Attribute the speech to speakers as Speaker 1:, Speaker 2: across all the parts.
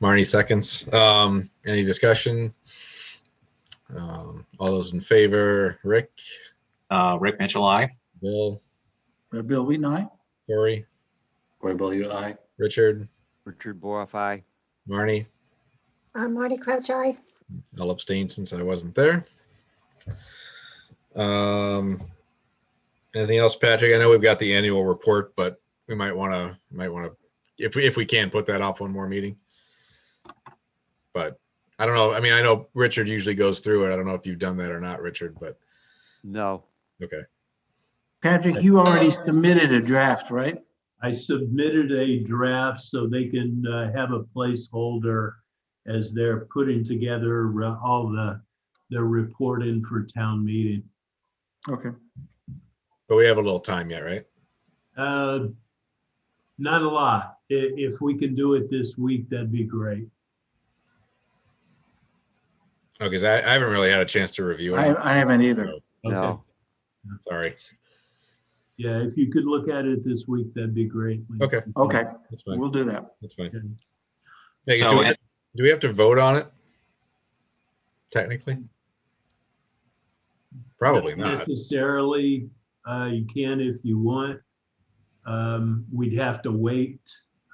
Speaker 1: Marnie seconds. Um, any discussion? Um, all those in favor, Rick,
Speaker 2: Uh, Rick Mitchell, I.
Speaker 1: Bill,
Speaker 3: Red Bill Wheaton, aye.
Speaker 1: Corey,
Speaker 4: Corey Bell, you aye.
Speaker 1: Richard,
Speaker 5: Richard Boroff, aye.
Speaker 1: Marnie,
Speaker 6: Uh, Marty Crouch, aye.
Speaker 1: I'll abstain since I wasn't there. Um, anything else, Patrick? I know we've got the annual report, but we might want to, might want to, if we, if we can put that off one more meeting. But I don't know. I mean, I know Richard usually goes through it. I don't know if you've done that or not, Richard, but
Speaker 5: No,
Speaker 1: okay.
Speaker 3: Patrick, you already submitted a draft, right?
Speaker 7: I submitted a draft so they can uh, have a placeholder as they're putting together uh, all the, their reporting for town meeting.
Speaker 3: Okay.
Speaker 1: But we have a little time yet, right?
Speaker 7: Uh, Not a lot. I- If we can do it this week, that'd be great.
Speaker 1: Oh, because I, I haven't really had a chance to review
Speaker 3: I,
Speaker 1: it.
Speaker 3: I haven't either.
Speaker 7: Okay.
Speaker 5: no.
Speaker 1: Sorry.
Speaker 7: Yeah, if you could look at it this week, that'd be great.
Speaker 1: Okay.
Speaker 3: Okay,
Speaker 1: That's fine.
Speaker 3: we'll do that.
Speaker 1: That's fine.
Speaker 7: Okay.
Speaker 1: Vegas,
Speaker 2: So
Speaker 1: do, we,
Speaker 2: at-
Speaker 1: do we have to vote on it? Technically? Probably not.
Speaker 7: Necessarily, uh, you can if you want. Um, We'd have to wait.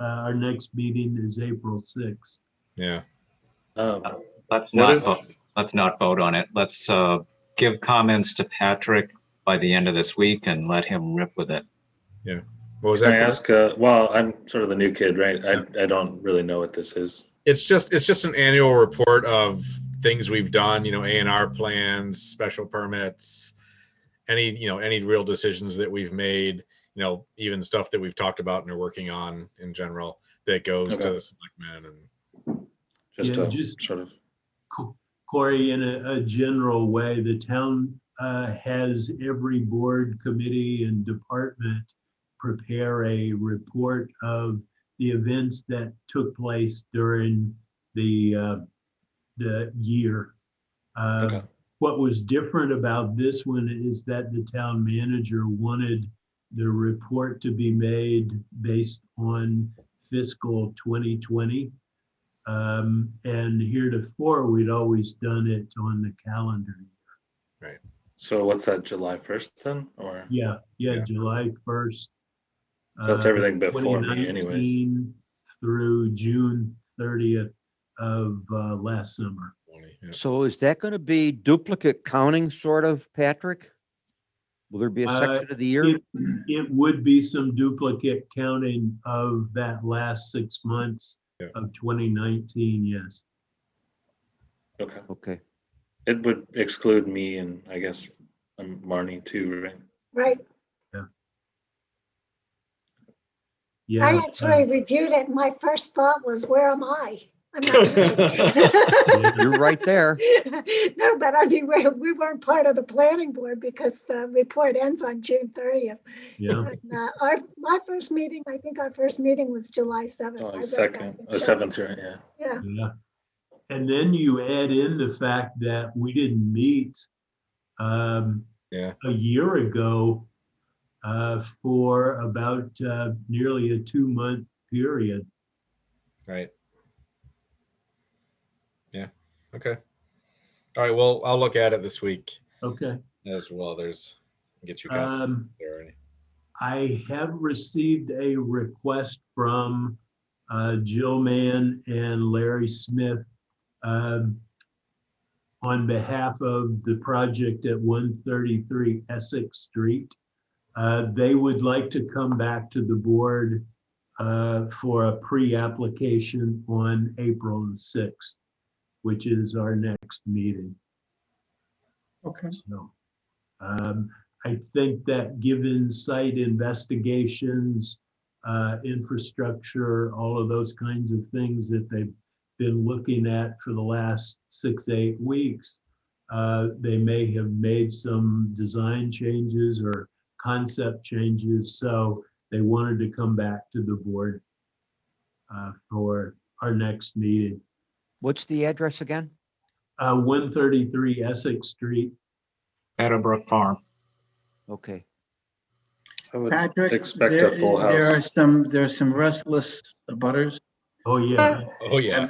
Speaker 7: Uh, Our next meeting is April 6th.
Speaker 1: Yeah.
Speaker 4: Um,
Speaker 7: Oh,
Speaker 2: Let's
Speaker 4: What
Speaker 2: not,
Speaker 4: is-
Speaker 2: vote- let's not vote on it. Let's, uh, give comments to Patrick by the end of this week and let him rip with it.
Speaker 1: What was
Speaker 4: Can I
Speaker 1: that?
Speaker 4: ask, uh, well, I'm sort of the new kid, right? I, I don't really know what this is.
Speaker 1: It's just, it's just an annual report of things we've done, you know, A and R plans, special permits, any, you know, any real decisions that we've made, you know, even stuff that we've talked about and are working on in general that goes to
Speaker 4: Okay.
Speaker 1: the selectmen and
Speaker 4: Just
Speaker 7: Yeah,
Speaker 4: a
Speaker 7: just-
Speaker 4: sort of,
Speaker 7: Co- Corey, in a, a general way, the town uh, has every board, committee, and department prepare a report of the events that took place during the, uh, the year. Uh,
Speaker 4: okay,
Speaker 7: What was different about this one is that the town manager wanted the report to be made based on fiscal 2020. Um, And heretofore, we'd always done it on the calendar.
Speaker 4: so what's that, July 1st then, or?
Speaker 7: Yeah, yeah,
Speaker 1: Yeah.
Speaker 7: July 1st.
Speaker 4: So that's
Speaker 7: uh,
Speaker 4: everything before me anyways.
Speaker 7: 2019 Through June 30th of uh, last summer.
Speaker 1: twenty. yeah.
Speaker 5: So is that going to be duplicate counting sort of, Patrick? Will there be a
Speaker 7: Uh,
Speaker 5: section of the year?
Speaker 7: It would be some duplicate counting of that last six months
Speaker 1: Yeah.
Speaker 7: of 2019, yes.
Speaker 4: Okay,
Speaker 5: Okay,
Speaker 4: it would exclude me and I guess um, Marnie too, right?
Speaker 6: Right. I
Speaker 7: Yeah. uh,
Speaker 6: actually reviewed it. and My first thought was, where am I? I'm not mentioned.
Speaker 7: uh,
Speaker 5: you're right there.
Speaker 6: No, but I mean, we, we weren't part of the planning board because the report ends on June thirtieth. uh,
Speaker 7: Yeah,
Speaker 6: Our, my first meeting, I think our first meeting was July seventh.
Speaker 4: July 2nd, uh, 7th, right, yeah.
Speaker 6: Yeah,
Speaker 7: yeah. And then you add in the fact that we didn't meet um,
Speaker 1: Yeah.
Speaker 7: a year ago uh, for about uh, nearly a two-month period.
Speaker 1: Right. Yeah. Okay. All right. Well, I'll look at it this week
Speaker 7: Okay.
Speaker 1: as well. There's get you copies
Speaker 7: Um,
Speaker 1: there already.
Speaker 7: I have received a request from uh, Jill Mann and Larry Smith um, on behalf of the project at 133 Essex Street. Uh, They would like to come back to the board uh, for a pre-application on April the 6th, which is our next meeting.
Speaker 3: Okay.
Speaker 7: So, um, I think that given site investigations, uh, infrastructure, all of those kinds of things that they've been looking at for the last six, eight weeks, uh, they may have made some design changes or concept changes, so they wanted to come back to the board uh, for our next meeting.
Speaker 5: What's the address again?
Speaker 7: Uh, 133 Essex Street,
Speaker 2: Meadowbrook Farm.
Speaker 5: Okay.
Speaker 4: I would
Speaker 3: Patrick,
Speaker 4: expect
Speaker 3: there
Speaker 4: a full
Speaker 3: there are
Speaker 4: house.
Speaker 3: some, there are some restless butters.
Speaker 7: oh yeah.
Speaker 1: Oh yeah.